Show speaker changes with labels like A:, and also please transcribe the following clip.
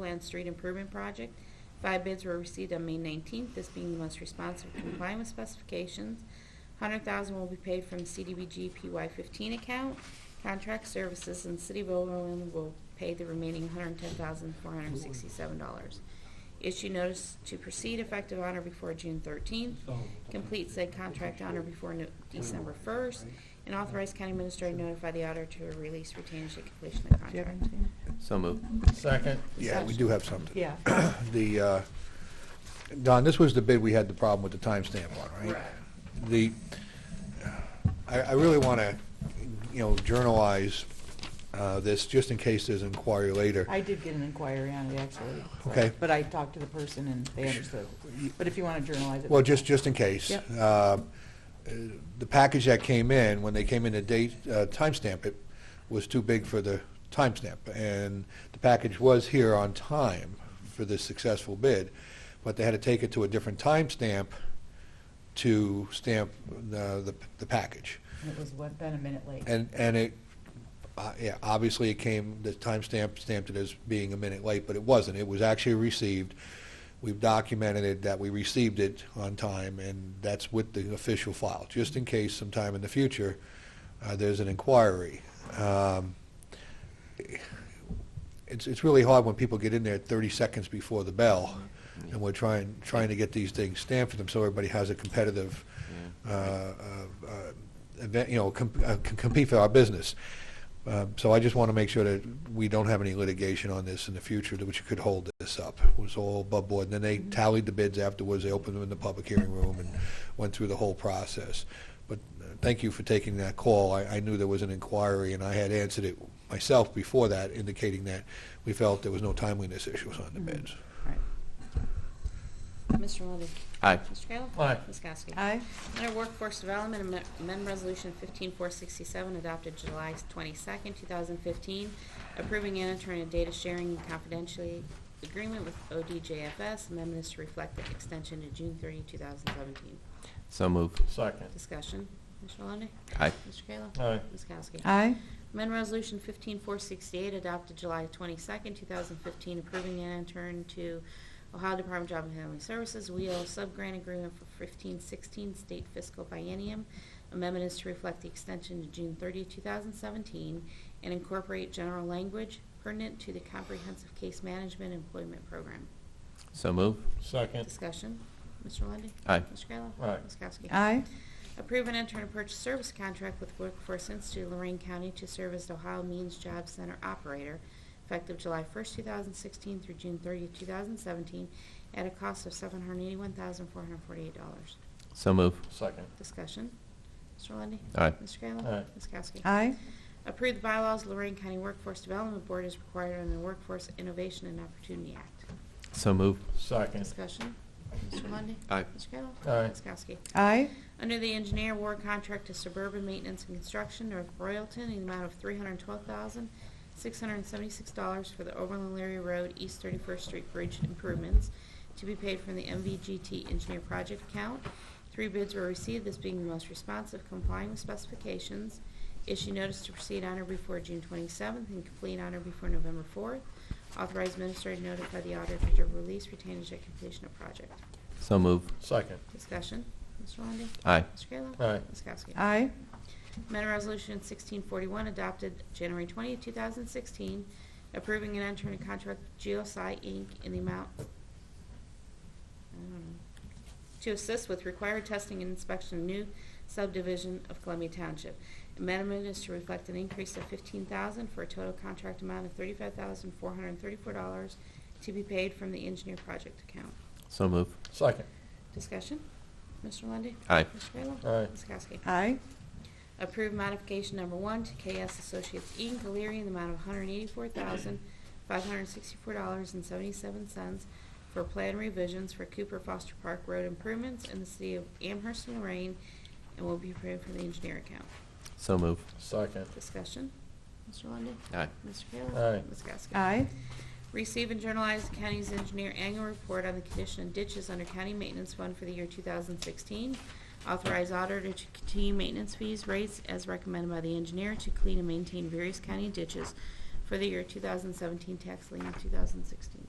A: Land Street Improvement Project. Five bids were received on May 19th, this being the most responsive to comply with specifications. 100000 will be paid from CDBG PY15 account. Contract services and City of Overland will pay the remaining $110,467. Issue notice to proceed effective on or before June 13th. Complete said contract on or before no- December 1st. And authorize county administrator to notify the auditor to release retained at completion of
B: Do you have
A: contract.
B: anything?
C: So moved.
D: Second.
E: Yeah, we do have something.
B: Yeah.
E: The, uh, Don, this was the bid we had the problem with the timestamp on, right? The, I, I really want to, you know, journalize uh, this, just in case there's inquiry later.
B: I did get an inquiry on it, actually.
E: Okay.
B: But I talked to the person and they understood. But if you want to journalize it.
E: Well, just, just in case.
B: Yep.
E: Uh, The package that came in, when they came in to date, uh, timestamp it, was too big for the timestamp. And the package was here on time for this successful bid, but they had to take it to a different timestamp to stamp the, the- the package.
B: It was one, been a minute late.
E: And, and it, uh, yeah, obviously it came, the timestamp stamped it as being a minute late, but it wasn't. It was actually received. We've documented it, that we received it on time, and that's with the official file, just in case sometime in the future, uh, there's an inquiry. Um, It's, it's really hard when people get in there 30 seconds before the bell, and we're trying, trying to get these things stamped for them, so everybody has a competitive uh, uh, uh, event, you know, com- uh, c- compete for our business. Um, So I just want to make sure that we don't have any litigation on this in the future, that which could hold this up. It was all above board, and then they tallied the bids afterwards, they opened them in the public hearing room and went through the whole process. But uh, thank you for taking that call. I, I knew there was an inquiry, and I had answered it myself before that, indicating that we felt there was no timeliness issues on the bids.
B: All right.
A: Mr. Lundey.
C: Aye.
A: Mr. Kayla.
D: Aye.
A: Ms. Kowski.
B: Aye.
A: Under Workforce Development, amend- amend Resolution 15467 adopted July 22nd, 2015, approving inter-attorney data sharing and confidentiality agreement with ODJFS. Amendment is to reflect the extension to June 30, 2017.
C: So moved.
D: Second.
A: Discussion. Mr. Lundey.
C: Aye.
A: Mr. Kayla.
D: Aye.
A: Ms. Kowski.
B: Aye.
A: Amendment Resolution 15468 adopted July 22nd, 2015, approving an intern to Ohio Department of Job and Family Services, WEO subgrant agreement for 1516 state fiscal biennium. Amendment is to reflect the extension to June 30, 2017, and incorporate general language pertinent to the comprehensive case management employment program.
C: So moved.
D: Second.
A: Discussion. Mr. Lundey.
C: Aye.
A: Mr. Kayla.
D: Aye.
A: Ms. Kowski.
B: Aye.
A: Approve an intern purchase service contract with Workforce Institute Lorraine County to serve as the Ohio Means Job Center operator effective July 1st, 2016 through June 30th, 2017 at a cost of $781,448.
C: So moved.
D: Second.
A: Discussion. Mr. Lundey.
C: Aye.
A: Mr. Kayla.
D: Aye.
A: Ms. Kowski.
B: Aye.
A: Approve the bylaws Lorraine County Workforce Development Board is required under the Workforce Innovation and Opportunity Act.
C: So moved.
D: Second.
A: Discussion. Mr. Lundey.
C: Aye.
A: Mr. Kayla.
D: Aye.
A: Ms. Kowski.
B: Aye.
A: Under the engineer award contract to Suburban Maintenance and Construction, North Royalton, in the amount of $312,676 for the Overland Larry Road East 31st Street Bridge improvements to be paid from the MVGT Engineer Project account. Three bids were received, this being the most responsive complying with specifications. Issue notice to proceed on or before June 27th and complete on or before November 4th. Authorize administrator to notify the auditor to release retainage at completion of project.
C: So moved.
D: Second.
A: Discussion. Mr. Lundey.
C: Aye.
A: Mr. Kayla.
D: Aye.
A: Ms. Kowski.
B: Aye.
A: Amendment Resolution 1641 adopted January 20, 2016, approving an entering a contract with GeoSci Inc. in the amount, um, I don't know, to assist with required testing and inspection of new subdivision of Columbia Township. Amendment is to reflect an increase of 15000 for a total contract amount of $35,434 to be paid from the engineer project account.
C: So moved.
D: Second.
A: Discussion? Mr. Lundey?
C: Aye.
A: Mr. Kayla?
D: Aye.
A: Ms. Kowski?
B: Aye.
A: Approve modification number one to KS Associates Inc., Leary, in the amount of $184,564.77 for plan revisions for Cooper Foster Park Road improvements in the city of Amherst, and Lorraine, and will be approved from the engineer account.
C: So moved.
D: Second.
A: Discussion? Mr. Lundey?
C: Aye.
A: Mr. Kayla?
D: Aye.
A: Ms. Kowski?
B: Aye.
A: Receive and journalize the county's engineer annual report on the condition of ditches under county maintenance fund for the year 2016. Authorize auditor to continue maintenance fees rates as recommended by the engineer to clean and maintain various county ditches for the year 2017 tax lien 2016.